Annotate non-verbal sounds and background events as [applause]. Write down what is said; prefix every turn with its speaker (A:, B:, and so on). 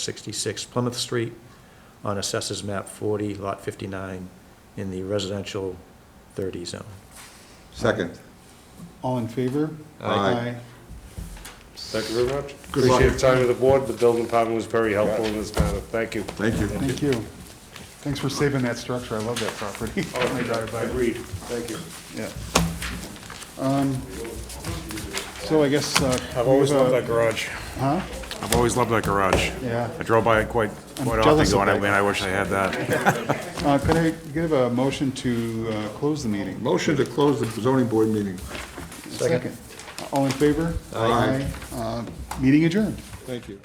A: 66 Plymouth Street on Assessors Map 40, Lot 59, in the residential 30 zone.
B: Second.
C: All in favor?
B: Aye.
D: Thank you very much.
B: Good luck.
D: Appreciate the time of the board. The building department was very helpful in this matter. Thank you.
B: Thank you.
C: Thank you. Thanks for saving that structure, I love that property. [laughs] I drive by.
D: Agreed. Thank you.
C: Yeah. Um, So I guess. uh,
D: I've always
C: we have
D: loved
C: a-
D: that garage.
C: Huh?
D: I've always loved that garage.
C: Yeah.
D: I drove by it quite,
C: I'm
D: quite often
C: jealous of
D: going, I
C: that
D: mean, I wish I had that.
C: Uh, Could I give a motion to uh, close the meeting?
B: Motion to close the zoning board meeting.
C: Second. All in favor? Aye. Uh, Meeting adjourned.
B: Thank you.